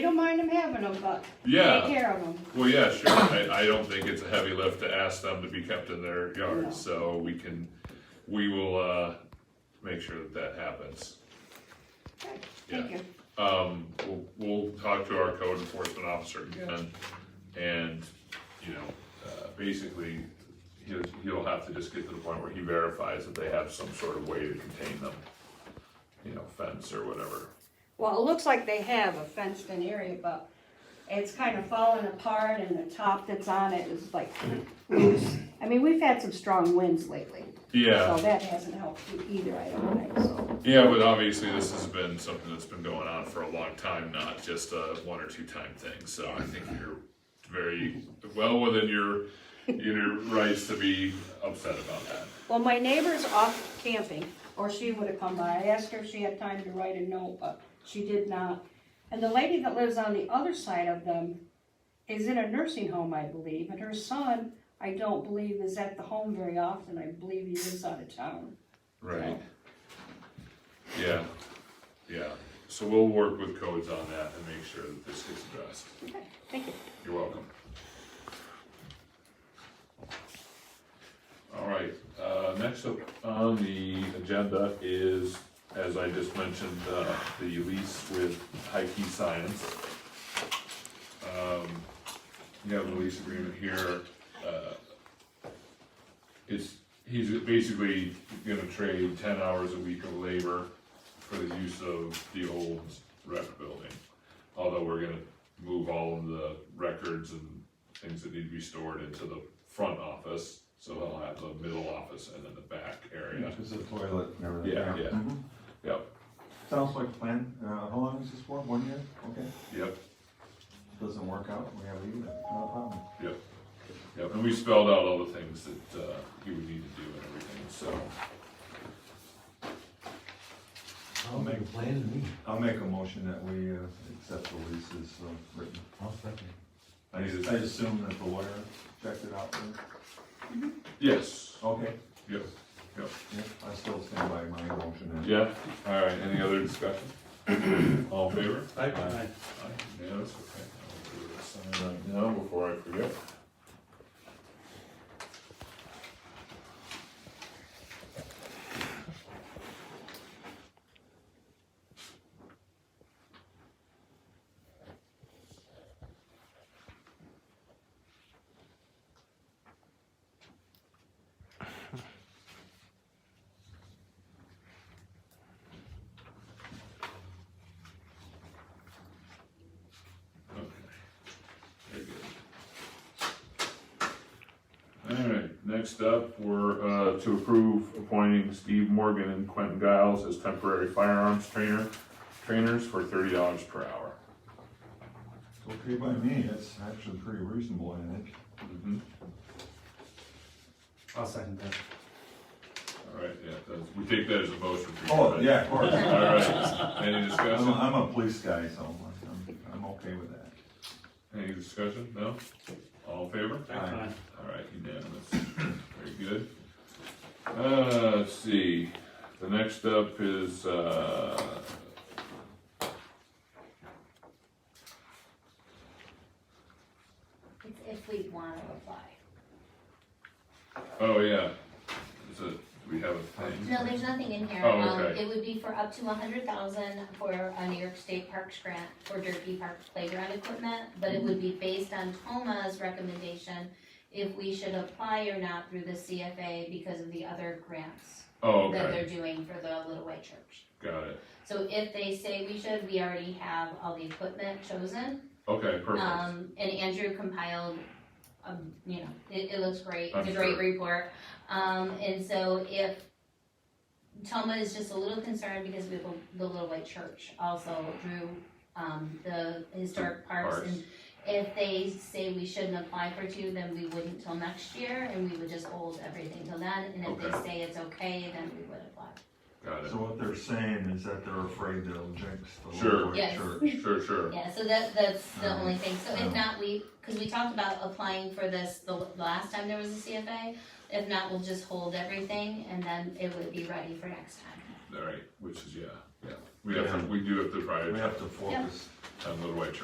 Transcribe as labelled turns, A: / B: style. A: don't mind them having them, but
B: Yeah.
A: take care of them.
B: Well, yeah, sure, I, I don't think it's a heavy lift to ask them to be kept in their
A: No.
B: yard, so we can, we will, uh, make sure that that happens.
A: Okay, Thank
B: Yeah.
A: you.
B: Um, we'll, we'll talk to our code enforcement officer again, and, you know, uh, basically, he'll, he'll have to just get to the point where he verifies that they have some sort of way to contain them. You know, fence or whatever,
A: Well, it looks like they have a fenced-in area, but it's kind of falling apart and the top that's on it is like loose. I mean, we've had some strong winds lately.
B: yeah.
A: So that hasn't helped you either, I don't think, so.
B: Yeah, but obviously this has been something that's been going on for a long time, not just a one or two time thing. So I think you're very well within your your rights to be upset about that.
A: Well, my neighbor's off camping, or she would have come by. I asked her if she had time to write a note, but she did not. And the lady that lives on the other side of them is in a nursing home, I believe, and her son, I don't believe, is at the home very often. I believe he lives out of town.
B: Right. Yeah, yeah. So we'll work with codes on that and make sure that this gets addressed.
A: Okay, Thank you.
B: You're welcome. All right, uh, next up on the agenda is, as I just mentioned, uh, the lease with High Key Science. Um, You have the lease agreement here. uh, It's, he's basically gonna trade ten hours a week of labor for the use of the old rec building although we're gonna move all of the records and things that need to be stored into the front office, so they'll have the middle office and then the back area.
C: It's a toilet and everything.
B: Yeah, yeah.
D: Mm-hmm.
C: Mhm.
B: Yep,
C: Sounds like a plan, uh, how long is this for, one year? Okay,
B: yep,
C: doesn't work out, we have to leave it, no problem.
B: yep, yep, and we spelled out all the things that, uh, you would need to do and everything, so.
D: I'll make a plan to meet.
C: I'll make a motion that we, uh, accept the lease as uh, written.
D: I'll second.
C: I just, I assume that the lawyer checked it out, then?
B: Yes,
C: okay,
B: yep, yep,
C: yeah, I still stand by my motion. and-
B: yeah, alright, any other discussion? All in favor?
C: Aye.
B: Aye, yeah, that's okay. I'll do this sign right now before I forget. Okay. Very good. All right, next up, we're, uh, to approve appointing Steve Morgan and Quentin Giles as temporary firearms trainer, trainers for thirty dollars per hour.
C: Okay by me, that's actually pretty reasonable, I think.
B: Mhm.
D: I'll second that.
B: All right, yeah, that's, we take that as a motion for you.
C: Oh,
B: right?
C: yeah, of
B: All
C: course,
B: right, any
C: I'm, a-
B: discussion?
C: I'm a police guy, so I'm, I'm okay with that.
B: Any discussion? No? All in favor?
C: Aye.
B: All right, unanimous. Very good. Uh, let's see, the next up is, uh,
E: It's if we want to apply.
B: oh, yeah. Is it, we have a thing?
E: No, there's nothing in here.
B: Oh,
E: Um,
B: okay.
E: It would be for up to a hundred thousand for a New York State Parks grant for Derby Park playground equipment, but it would be based on Toma's recommendation if we should apply or not through the CFA because of the other grants
B: Oh,
E: that
B: okay,
E: they're doing for the Little White Church.
B: got it.
E: So if they say we should, we already have all the equipment chosen.
B: Okay, perfect.
E: Um, and Andrew compiled, um, you know, it, it looks great,
B: I'm
E: it's a great
B: sure.
E: report. Um, and so if, Toma is just a little concerned because we have a- the Little White Church also drew, um, the historic parks.
B: Parks.
E: And if they say we shouldn't apply for two, then we wouldn't till next year, and we would just hold everything till then. And if
B: Okay.
E: they say it's okay, then we would apply.
B: Got
C: So what they're saying is that they're afraid they'll jinx the
B: Sure.
C: Lord's
E: Yes.
C: church.
B: it. Sure, sure.
E: Yeah, so that, that's the
C: Um,
E: only thing, so
C: um,
E: if not, we, cause we talked about applying for this the l- last time there was a CFA. If not, we'll just hold everything and then it would be ready for next time.
B: All right, which is, yeah, yeah. We have to, we do have to
C: We
B: prioritize
C: have to focus
B: on Little White Church.